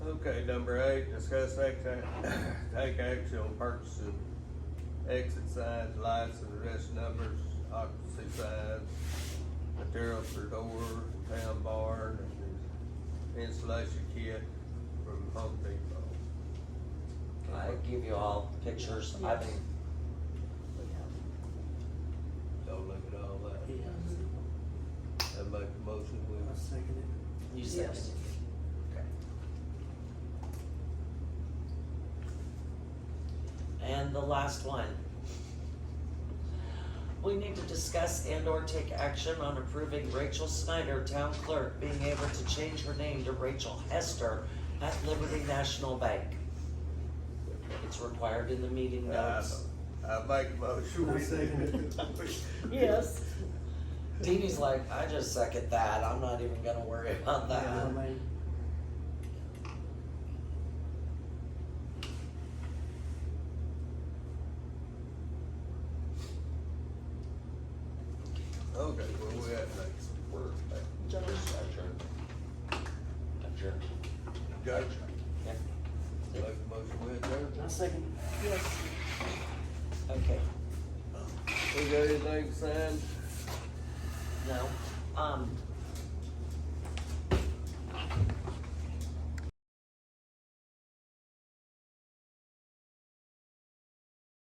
Okay, number eight, discuss take, take action on purchasing exit signs, lights and arrest numbers, occupancy signs, material for door, town barn, and installation kit from Home Depot. I give you all pictures, I Yes. think, So look at all that. I make a motion I with, second it. you said. Yes. Okay. And the last one. We need to discuss and or take action on approving Rachel Snyder, town clerk, being able to change her name to Rachel Hester at Liberty National Bank. It's required in the meeting I, notes. I make a motion I with. second Yes. Deedee's like, I just second that, I'm not even gonna worry about Yeah, I that. mean, Okay, where we at next? We're at Josh. Adjourned. Adjourned. Judge, Yep. make a motion with, Judge. I second it. Yes. Okay, We got anything signed? no, um,